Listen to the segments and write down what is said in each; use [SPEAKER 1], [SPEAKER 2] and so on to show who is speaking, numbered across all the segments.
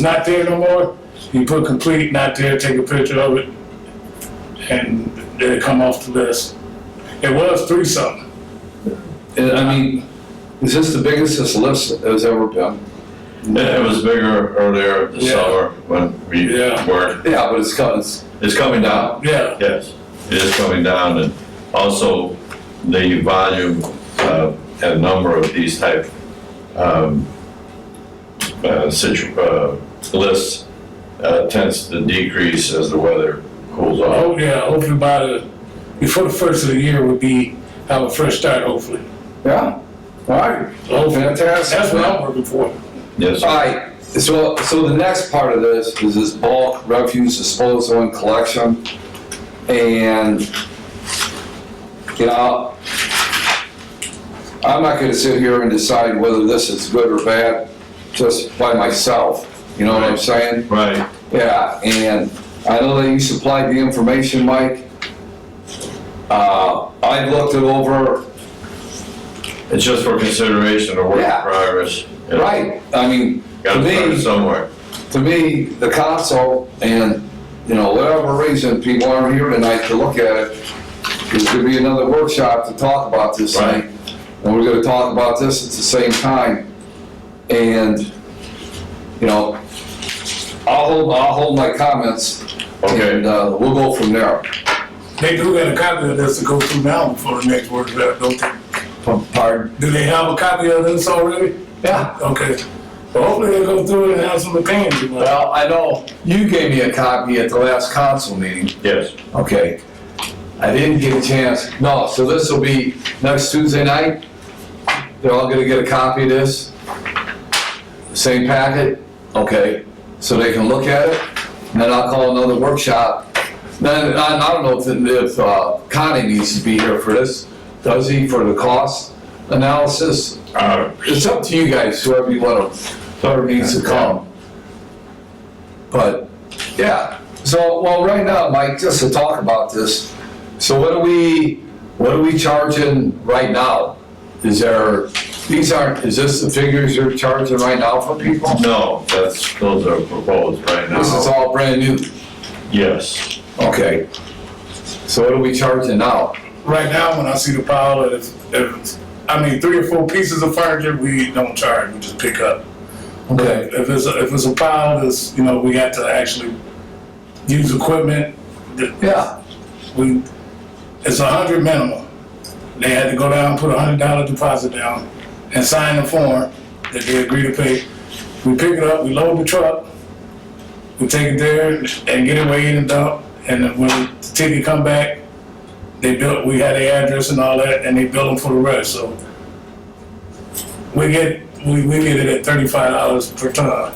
[SPEAKER 1] not there no more, you put complete, not there, take a picture of it, and they come off the list. It was three something.
[SPEAKER 2] And I mean, is this the biggest this list has ever been?
[SPEAKER 3] It was bigger earlier this
[SPEAKER 1] Yeah.
[SPEAKER 3] summer when we
[SPEAKER 1] Yeah.
[SPEAKER 3] were,
[SPEAKER 2] Yeah, but it's got, it's,
[SPEAKER 3] it's coming down.
[SPEAKER 1] Yeah,
[SPEAKER 3] Yes, it is coming down and also the volume, uh, and number of these type, um, uh, situ, uh, lists, uh, tends to decrease as the weather cools off.
[SPEAKER 1] oh, yeah, hopefully by the, before the first of the year would be, have a fresh start, hopefully.
[SPEAKER 2] yeah, all right,
[SPEAKER 1] Hopefully,
[SPEAKER 2] fantastic.
[SPEAKER 1] that's what I'm working for.
[SPEAKER 3] Yes,
[SPEAKER 2] All right, so, so the next part of this is this bulk refuse disposal and collection. And, you know, I'm not gonna sit here and decide whether this is good or bad just by myself, you know what I'm saying?
[SPEAKER 3] right,
[SPEAKER 2] Yeah, and I know that you supplied the information, Mike. Uh, I looked it over,
[SPEAKER 3] it's just for consideration or work in
[SPEAKER 2] Yeah.
[SPEAKER 3] progress. you know.
[SPEAKER 2] right, I mean, to
[SPEAKER 3] Gotta start
[SPEAKER 2] me,
[SPEAKER 3] somewhere.
[SPEAKER 2] to me, the council and, you know, whatever reason, people aren't here tonight to look at it. There's gonna be another workshop to talk about this
[SPEAKER 3] Right.
[SPEAKER 2] thing, and we're gonna talk about this at the same time. And, you know, I'll hold, I'll hold my comments,
[SPEAKER 3] Okay.
[SPEAKER 2] and, uh, we'll go from there.
[SPEAKER 1] They do have a copy of this to go through now before the next workshop, don't they?
[SPEAKER 2] Pardon?
[SPEAKER 1] Do they have a copy of this already?
[SPEAKER 2] Yeah,
[SPEAKER 1] Okay. Well, hopefully they go through it and have some opinions about it.
[SPEAKER 2] well, I know you gave me a copy at the last council meeting,
[SPEAKER 3] Yes,
[SPEAKER 2] okay? I didn't get a chance, no, so this will be next Tuesday night? They're all gonna get a copy of this? Same packet? Okay, so they can look at it, and then I'll call another workshop. Then, I, I don't know if, if uh, Connie needs to be here for this, does he, for the cost analysis?
[SPEAKER 3] uh,
[SPEAKER 2] It's up to you guys, whoever you want to, whoever needs to come. But, yeah, so, well, right now, Mike, just to talk about this, so what are we, what are we charging right now? Is there, these aren't, is this the figures you're charging right now for people?
[SPEAKER 3] no, that's, those are proposed right
[SPEAKER 2] This is
[SPEAKER 3] now.
[SPEAKER 2] all brand new,
[SPEAKER 3] Yes,
[SPEAKER 2] okay. So what are we charging now?
[SPEAKER 1] Right now, when I see the pile, if, if, I mean, three or four pieces of furniture, we don't charge, we just pick up.
[SPEAKER 2] Okay,
[SPEAKER 1] If it's, a- if it's a pile, that's, you know, we got to actually use equipment, th-
[SPEAKER 2] yeah,
[SPEAKER 1] we, it's a hundred minimum. They had to go down, and put a hundred dollar deposit down and sign the form that they agree to pay. We pick it up, we load the truck, we take it there and get it weighed and dumped. And then when the ticket come back, they built, we had the address and all that, and they billed them for the rest, so. We get, we, we get it at thirty-five dollars per ton.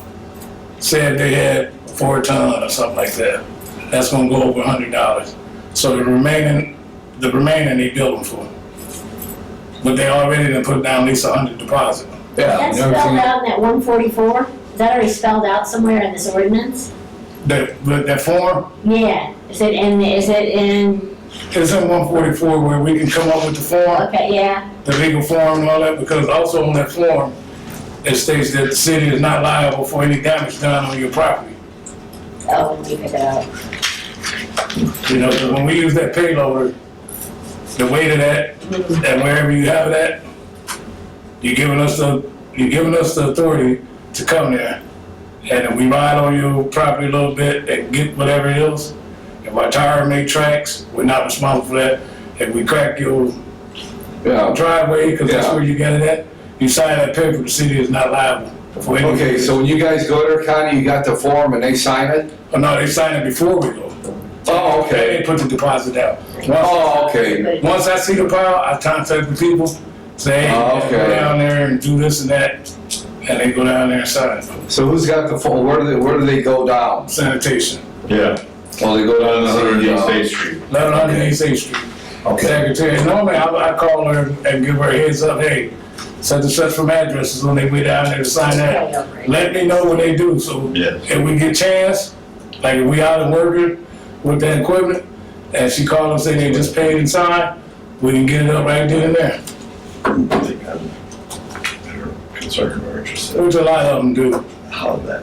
[SPEAKER 1] Say if they had four ton or something like that, that's gonna go over a hundred dollars. So the remaining, the remaining they bill them for. But they already done put down at least a hundred deposit.
[SPEAKER 2] yeah.
[SPEAKER 4] That's
[SPEAKER 2] and everything-
[SPEAKER 4] spelled out in that one forty-four, is that already spelled out somewhere in this ordinance?
[SPEAKER 1] That, but that form
[SPEAKER 4] Yeah, is it in, is it in,
[SPEAKER 1] is in one forty-four where we can come up with the form,
[SPEAKER 4] okay, yeah,
[SPEAKER 1] the legal form and all that, because also on that form, it states that the city is not liable for any damage done on your property.
[SPEAKER 4] oh, we pick it up.
[SPEAKER 1] You know, 'cause when we use that payloader, the weight of that, and wherever you have that, you're giving us the, you're giving us the authority to come there. And if we ride on your property a little bit and get whatever it is, if our tire make tracks, we're not responsible for that. If we crack your
[SPEAKER 2] Yeah,
[SPEAKER 1] driveway, because that's
[SPEAKER 2] Yeah.
[SPEAKER 1] where you got it at, you sign that paper, the city is not liable for any.
[SPEAKER 2] okay, so when you guys go there, Connie, you got the form and they sign it?
[SPEAKER 1] Oh, no, they sign it before we go.
[SPEAKER 2] Oh, okay.
[SPEAKER 1] They put the deposit down.
[SPEAKER 2] Oh, okay.
[SPEAKER 1] Once I see the pile, I contact the people, say, hey,
[SPEAKER 2] Oh, okay.
[SPEAKER 1] go down there and do this and that, and they go down there and sign
[SPEAKER 2] So who's got the phone? Where do they, where do they go down?
[SPEAKER 1] sanitation.
[SPEAKER 3] yeah,
[SPEAKER 2] Well, they go down
[SPEAKER 3] on
[SPEAKER 2] to
[SPEAKER 3] Hundred
[SPEAKER 2] the,
[SPEAKER 3] East
[SPEAKER 2] uh,
[SPEAKER 3] State Street.
[SPEAKER 1] Eleven hundred East Eighth Street.
[SPEAKER 2] Okay,
[SPEAKER 1] Secretary, normally I, I call her and give her a heads up, hey, such and such from addresses when they way down there to sign that. Let me know when they do, so
[SPEAKER 3] Yes.
[SPEAKER 1] if we get chance, like if we out and working with that equipment, and she call and say they just paid and signed, we can get it up right then and there,
[SPEAKER 3] I think I'm better concerned or interested
[SPEAKER 1] which a lot of them do.
[SPEAKER 3] how that